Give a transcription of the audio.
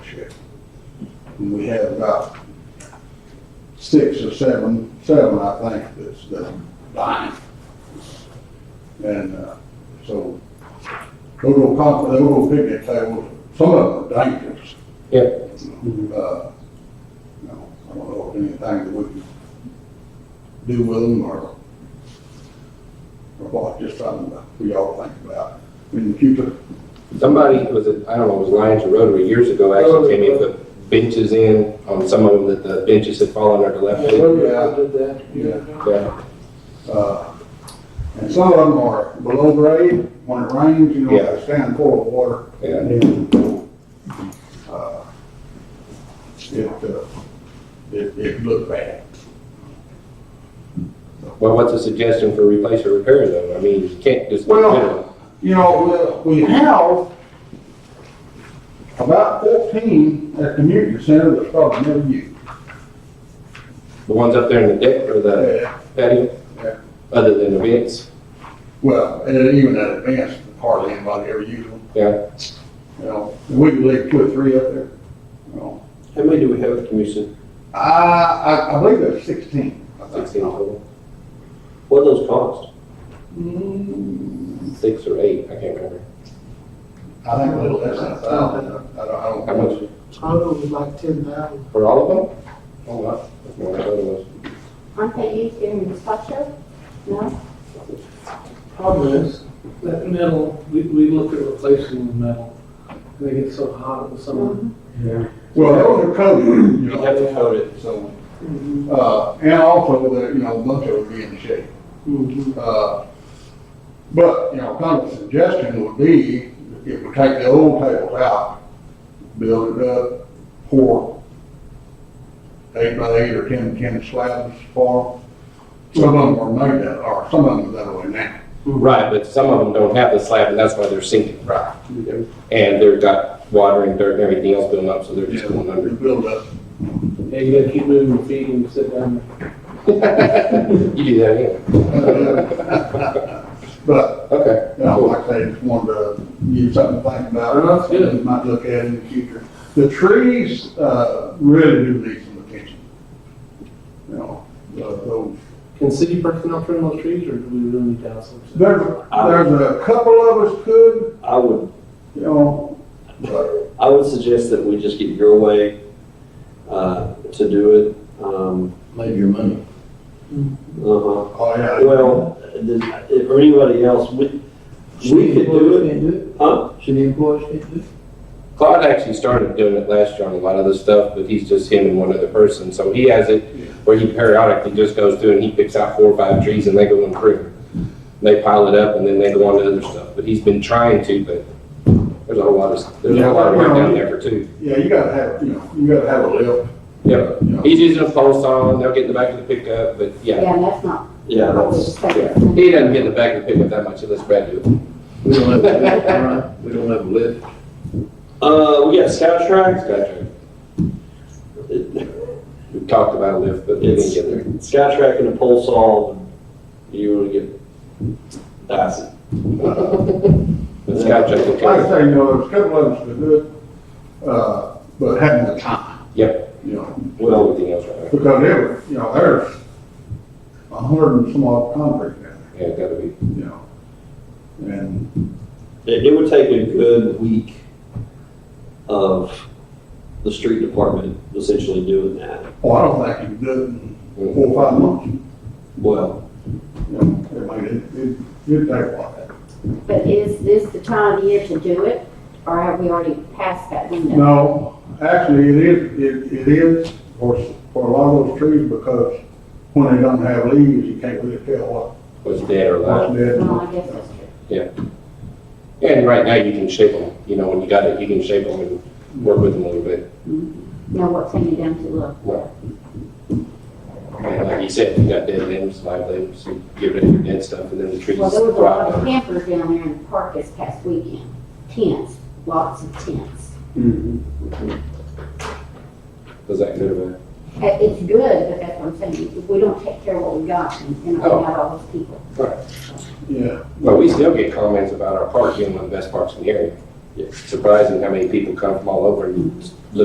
ship. And we have about six or seven, seven, I think, that's, that's dying. And, uh, so, those little comp, those little picnic tables, some of them are dangerous. Yep. Uh, you know, I don't know if anything that we can do with them or, or what, just something that we all think about in the future. Somebody was, it- I don't know, it was Lions or Rotary years ago actually came in, put benches in on some of them that the benches had fallen or the left. Yeah, in. Rotary Club did that. Yeah. Yeah, Uh, And some of them are below grade, when it rains, you know, they stand full of water. yeah. Uh, It, uh, it, it looked bad. Well, what's a suggestion for replace or repair them? I mean, you can't just. Well- You know, we we have about fourteen at the community center that's probably never used. The ones up there in the deck or the Uh, patio? Yeah. Other than the vents? Well, and even at advanced, hardly anybody ever used them, Yeah. you know. And We could leave two or three up there, you know. How many do we have at the commission? I, Uh, I, I believe there's sixteen. I think. Sixteen total. What do those cost? Mm, Six or eight, I can't remember. I think a little less than a thousand, I don't, I How don't. much Total was like ten thousand. for all of them? Oh, wow. That's more than I thought it was. Aren't they used in the structure? No? Problem is, that metal, we, we look at replacing the metal, and they get so hot in the summer. Well, those are covered, you You have know, to coat it. so, uh, and also, the you know, a bunch of them be in shape. Mm-hmm. Mhm. Uh, But, you know, kind of a suggestion would be, if we take the old tables out, build it up, pour eight by eight or ten, ten slabs for them. Some of them are made that, or some of them are that way now. Right, but some of them don't have the slab and that's why they're sinking. Right. And they've got water and dirt and everything else building up, so they're just going You under. build up, Yeah, you gotta keep moving your feet and sit down. You do that anyway. but, Okay. you know, like I say, just wanted to give something to think about. Oh, that's good. You Might look at in the future. The trees, uh, really do need some attention. You know, the- those Can city personnel trim those trees, or do we really need council? There's, there's a couple of us could, I would, you know, but, I would suggest that we just get your way, uh, to do it. Um, Save your money. uh-huh. oh, yeah. Well, does- or anybody else, we, we could do it. Can't do Huh? it. Should the employees can't do it? Claude actually started doing it last year on a lot of the stuff, but he's just him and one other person. So he has it where he periodically just goes through and he picks out four or five trees and they go in prune. They pile it up and then they go on to other stuff. But he's been trying to, but there's a whole lot of, there's a whole lot of work down there for two. Yeah, you gotta have, you know, you gotta have a lip, Yeah, you know. he's using a pole saw and they'll get in the back of the pickup, but yeah. Yeah, that's not. Yeah, what we that's, Yeah, expected. he doesn't get in the back of the pickup that much unless Brad do it. We don't have a lift, all right? We don't have a lift. uh, we got Scout Track. Gotcha. We talked about a lift, but we didn't get there. Scout Track and a pole saw, you wanna get, that's it. But Scout check will Uh, Like I count. say, you know, there's a couple of us could do it, uh, but having the time. Yep. You know, Well, everything else right there. because there, you know, there's a hundred and some odd concrete down Yeah, it's gotta be. there, you know. And, It, it would take a good week of the street department essentially doing that. oh, I don't think you can do it in four or five months, Well, you know, it might, it, it, it'd take a while. But is this the time of year to do it, or have we already passed that window? No, actually, it is, it, it is for, for a lot of those trees because when they don't have leaves, you can't really tell what, Was dead or alive. what's dead. and Well, what's Oh, I guess not. that's true. And right now you can shape them, you know, when you got it, you can shape them and work with them a little bit. Now what's hanging down to look? And like you said, you got dead limbs, live limbs, you get rid of your dead stuff and then the trees Well, there was a lot of rot. campers down there in the park this past weekend. Tents, lots of tents. Does that good or bad? Uh, It's good, but that's what I'm saying, if we don't take care of what we got, and and Oh. we got all those people. Yeah, But we still get comments about our park being one of the best parks in the area. It's surprising how many people come from all over and